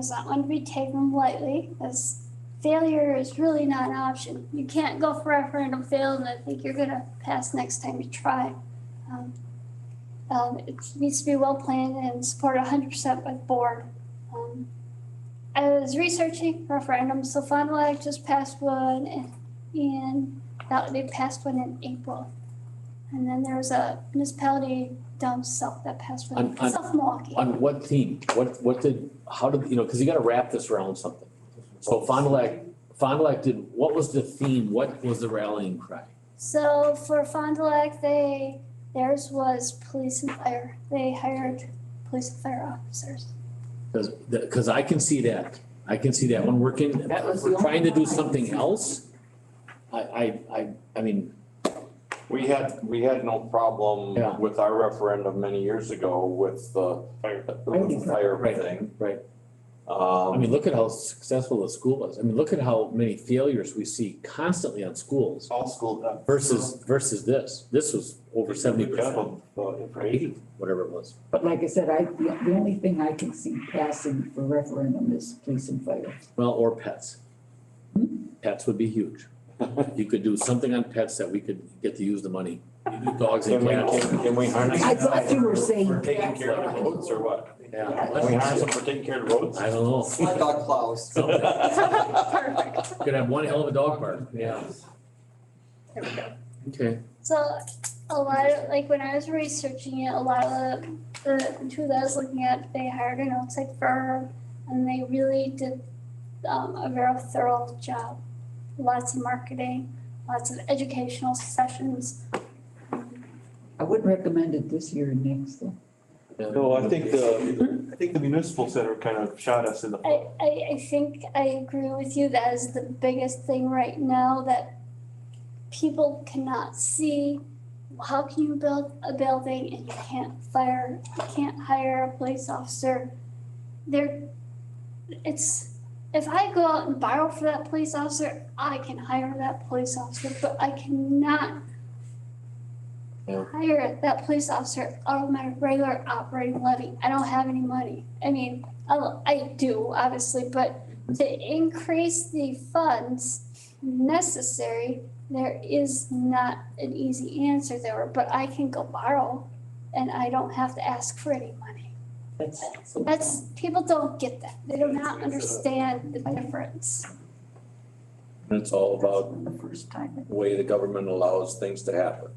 is not one to be taken lightly, as failure is really not an option. You can't go for a referendum fail and I think you're gonna pass next time you try. Um, um, it needs to be well planned and supported hundred percent by the board. Um, I was researching referendums, so Fond du Lac just passed one and- and that they passed one in April. And then there was a municipality down south that passed one, On- on- South Milwaukee. On what theme? What, what did, how did, you know, because you gotta wrap this around something. So Fond du Lac, Fond du Lac did, what was the theme? What was the rallying cry? So for Fond du Lac, they, theirs was police and fire. They hired police and fire officers. Because, because I can see that. I can see that when we're in, That was we're the only trying to do one I something see. else. I, I, I, I mean, We had, we had no Yeah. problem with our referendum many years ago with the the fire Right, thing. right. I Um, mean, look at how successful the school was. I mean, look at how many failures we see constantly on schools all school. versus, versus this. This was over seventy percent, eighty, whatever it was. But like I said, I, the the only thing I can see passing for referendum is police and fire. Well, or pets. Hmm? Pets would be huge. You could do something on pets that we could get to use the money. You do dogs Can and we, cats. can, can we harness? I thought you were saying For taking care of the that's roads or what? Can we harness Yeah. them for taking care of the roads? I don't know. Hot dog plows. Something. Could have one hell of a dog park. Yeah. Okay. So a lot of, like when I was researching it, a lot of the two that I was looking at, they hired an outside firm and they really did um, a very thorough job. Lots of marketing, lots of educational sessions. I wouldn't recommend it this year and next though. No, I think the, I think the municipal center kind of shot us in the foot. I, I, I think I agree with you. That is the biggest thing right now that people cannot see. How can you build a building and you can't fire, you can't hire a police officer? There, it's, if I go out and borrow for that police officer, I can hire that police officer, but I cannot Yeah. hire that police officer out of my regular operating levy. I don't have any money. I mean, Oh, I do, obviously, but to increase the funds necessary, there is not an easy answer there, but I can go borrow and I don't have to ask for any money. That's. That's, people don't get that. They do not understand the difference. It's all about The first time. the way the government allows things to happen.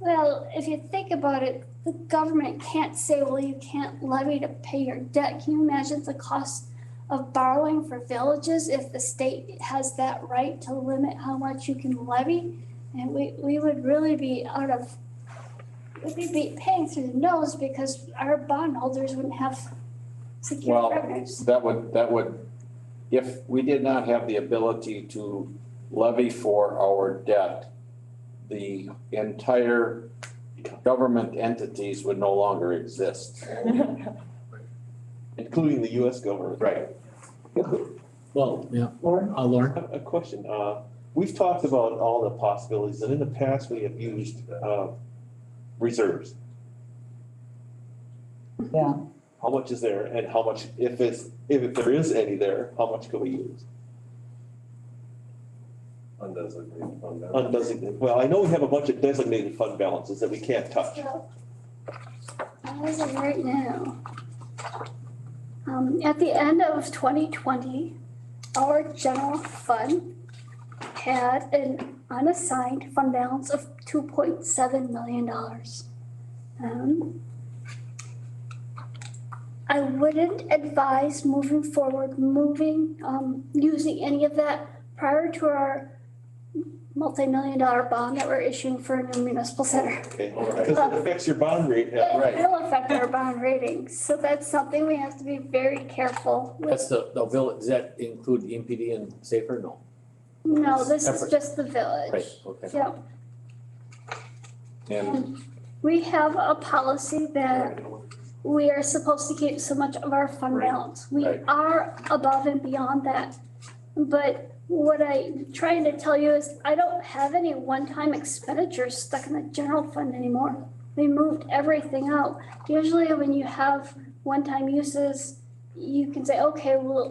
Well, if you think about it, the government can't say, well, you can't levy to pay your debt. Can you imagine the cost of borrowing for villages if the state has that right to limit how much you can levy? And we, we would really be out of, we'd be paying through the nose because our bondholders wouldn't have secure Well, revenues. That would, that would, if we did not have the ability to levy for our debt, the entire government entities would no longer exist. Including the US government. Right. Well, yeah, Lauren, uh, Lauren? A a question, uh, we've talked about all the possibilities and in the past we have used, uh, reserves. yeah, How much is there and how much, if it's, if there is any there, how much could we use? Undesignated fund balance. Undesignated, well, I know we have a bunch of designated fund balances that we can't touch. So, How is it right now? Um, at the end of twenty twenty, our general fund had an unassigned fund balance of two point seven million dollars. Um, I wouldn't advise moving forward, moving, um, using any of that prior to our multi-million dollar bond that we're issuing for a new municipal center. Okay, because it affects your bond rate, yeah, It right? will affect our bond ratings, so that's something we have to be very careful with. That's the, the village, does that include E EMPD and Safer? No, No, this is Separate. just the right, village. okay. Yep, And we have a policy that we are supposed to keep so much of our fund balance. We Right. are above and beyond that. But what I'm trying to tell you is I don't have any one-time expenditures stuck in the general fund anymore. We moved everything out. Usually when you have one-time uses, you can say, okay, well,